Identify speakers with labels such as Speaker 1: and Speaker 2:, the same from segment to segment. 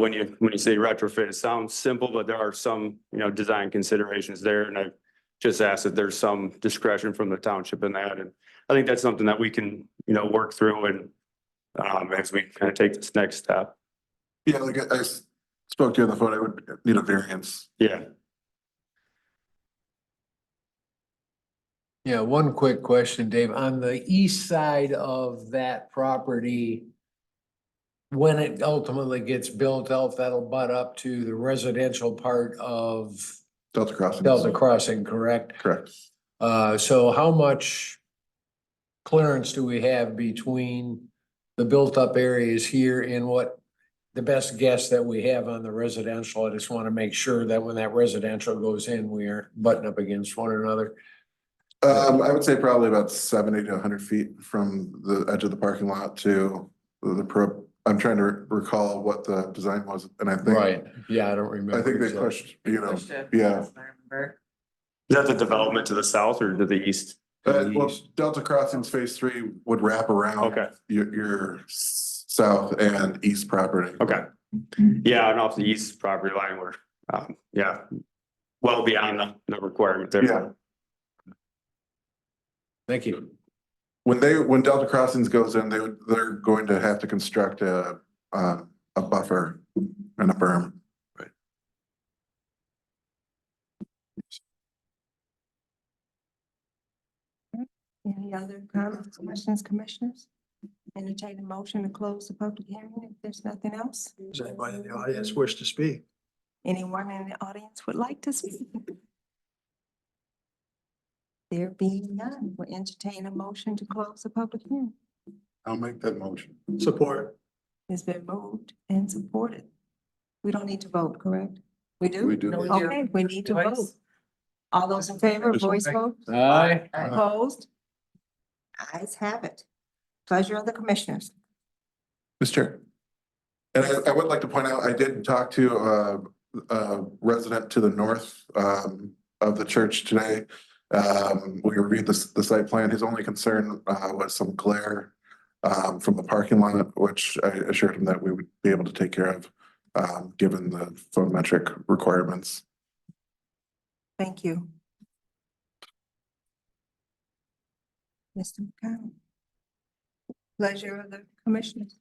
Speaker 1: when you, when you say retrofit, it sounds simple, but there are some, you know, design considerations there. And I just ask that there's some discretion from the township in that. And I think that's something that we can, you know, work through and um, as we kind of take this next step.
Speaker 2: Yeah, like I- I s- spoke to you on the phone, I would need a variance.
Speaker 1: Yeah.
Speaker 3: Yeah, one quick question, Dave. On the east side of that property, when it ultimately gets built out, that'll butt up to the residential part of
Speaker 2: Delta Crossing.
Speaker 3: Delta Crossing, correct?
Speaker 2: Correct.
Speaker 3: Uh, so how much clearance do we have between the built-up areas here and what the best guess that we have on the residential? I just want to make sure that when that residential goes in, we are butting up against one another.
Speaker 2: Um, I would say probably about seventy to hundred feet from the edge of the parking lot to the pro, I'm trying to re- recall what the design was, and I think.
Speaker 3: Right, yeah, I don't remember.
Speaker 2: I think they
Speaker 3: exactly.
Speaker 2: pushed, you know,
Speaker 4: Pushed it,
Speaker 2: yeah.
Speaker 4: if I remember.
Speaker 1: Is that the development to the south or to the east?
Speaker 2: uh, well, Delta Crossings Phase Three would wrap around.
Speaker 1: Okay.
Speaker 2: Your, your s- south and east property.
Speaker 1: Okay. Yeah, and off the east property line, we're, um, yeah, well beyond the, the requirement there.
Speaker 2: Yeah.
Speaker 3: Thank you.
Speaker 2: When they, when Delta Crossings goes in, they, would- they're going to have to construct a, um, a buffer and a berm.
Speaker 5: Any other comments, questions, commissioners? Entertain a motion to close the public hearing if there's nothing else.
Speaker 6: Does anybody in the audience wish to speak?
Speaker 5: Anyone in the audience would like to speak? There being none, we entertain a motion to close the public hearing.
Speaker 2: I'll make that motion.
Speaker 6: Support?
Speaker 5: It's been moved and supported. We don't need to vote, correct? We do?
Speaker 2: We do.
Speaker 4: No, we do.
Speaker 5: Okay, we need to
Speaker 4: Voice.
Speaker 5: vote. All those in favor,
Speaker 6: Just one
Speaker 5: voice vote,
Speaker 3: Aye.
Speaker 5: opposed? Eyes have it. Pleasure of the commissioners.
Speaker 2: Mr. Chair. And I, I would like to point out, I did talk to uh, a resident to the north um, of the church today. Um, We reviewed the, s- the site plan. His only concern uh, was some glare um, from the parking lot, which I assured him that we would be able to take care of, um, given the photometric requirements.
Speaker 5: Thank you. Mr. McConnell. Pleasure of the commissioners.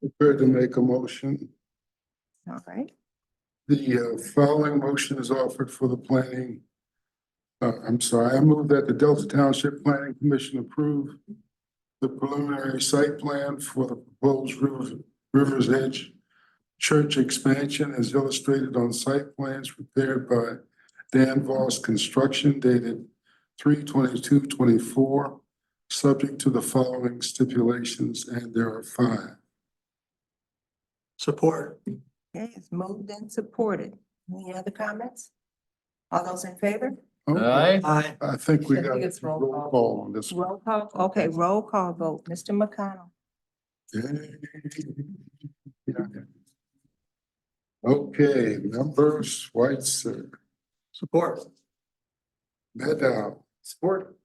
Speaker 7: prepared to make a motion.
Speaker 5: All right,
Speaker 7: The uh, following motion is offered for the planning. Uh, I'm sorry, I move that the Delta Township Planning Commission approve the preliminary site plan for the proposed Rivers, Rivers Edge church expansion as illustrated on site plans prepared by Dan Voss Construction dated 322-24, subject to the following stipulations, and there are five.
Speaker 6: Support?
Speaker 5: okay, it's moved and supported. Any other comments? All those in favor?
Speaker 3: Aye.
Speaker 6: Aye.
Speaker 7: I think we
Speaker 5: I think
Speaker 7: got
Speaker 5: it's roll
Speaker 7: roll
Speaker 5: call.
Speaker 7: call on this. one.
Speaker 5: Roll call, okay, roll call vote. Mr. McConnell.
Speaker 7: Okay, members, Switzer,
Speaker 6: Support?
Speaker 7: Maddow,
Speaker 6: Support?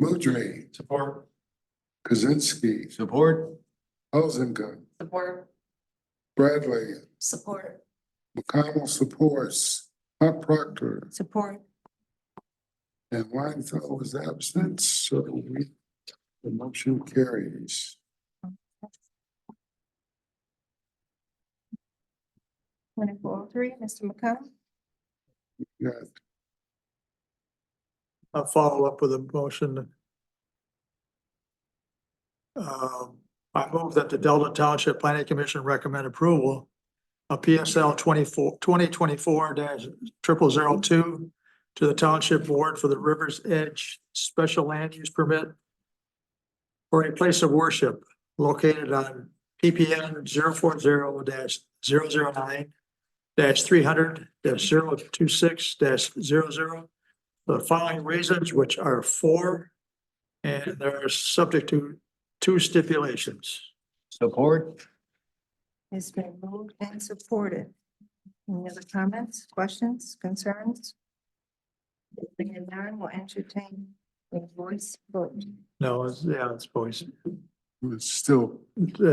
Speaker 7: Mudry,
Speaker 6: Support?
Speaker 7: Kozinski,
Speaker 3: Support?
Speaker 7: Elzinga,
Speaker 4: Support.
Speaker 7: Bradley,
Speaker 4: Support.
Speaker 7: McConnell supports, Hunt Proctor,
Speaker 5: Support.
Speaker 7: and Weinfeld was absent, so we, the motion carries.
Speaker 5: Twenty-four oh three, Mr. McConnell.
Speaker 7: Yeah,
Speaker 6: I'll follow up with a motion. Um, I move that the Delta Township Planning Commission recommend approval of PSL 24 2024 dash triple zero two to the Township Board for the Rivers Edge Special Land Use Permit for a place of worship located on PPN 040 dash zero zero nine dash three hundred dash zero two six dash zero zero the following reasons, which are four, and they're subject to two stipulations.
Speaker 3: Support?
Speaker 5: It's been moved and supported. Any other comments, questions, concerns? Being none, will entertain a voice vote.
Speaker 6: No, it's, yeah, it's voice.
Speaker 8: It's still
Speaker 2: Uh,